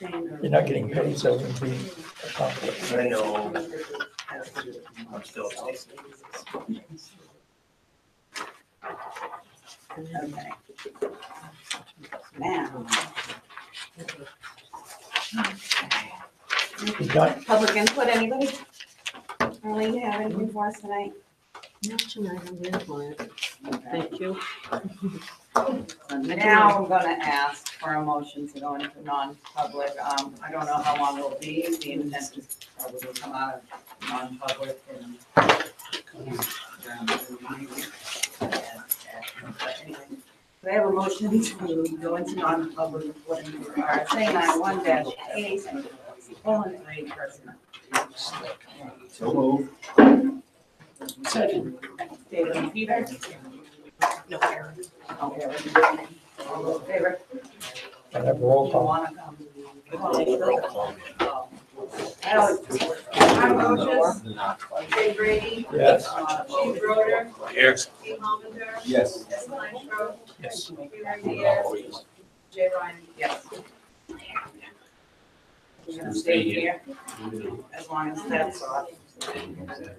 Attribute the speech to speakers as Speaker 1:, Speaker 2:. Speaker 1: You're not getting paid, so it's being a conflict.
Speaker 2: I know. I'm still.
Speaker 3: Okay. Now,
Speaker 1: You got,
Speaker 3: public input, anybody? Arlene, you have anything for us tonight?
Speaker 4: Not tonight, I'm very quiet.
Speaker 3: Okay.
Speaker 4: Thank you.
Speaker 3: Now I'm gonna ask for a motion to go into non-public. Um, I don't know how long it'll be. The intent is probably to come out of non-public and. um, But anyway, Do I have a motion to go into non-public according to RSA ninety-one dash eight? Colon three personnel.
Speaker 2: So move.
Speaker 3: Second. David and Peter? No, Aaron. Oh, Aaron. All those in favor?
Speaker 1: I have roll
Speaker 3: You
Speaker 1: call.
Speaker 3: wanna come? Oh. I always- I'm Moses.
Speaker 5: Jay Brady,
Speaker 1: Yes.
Speaker 5: Steve Broder,
Speaker 2: Here.
Speaker 5: Steve Momenter,
Speaker 2: Yes.
Speaker 5: Jess Lynchrow,
Speaker 1: Yes.
Speaker 5: Peter Diaz, Jay Ryan.
Speaker 3: Yes. You're gonna stay here as long as that's off.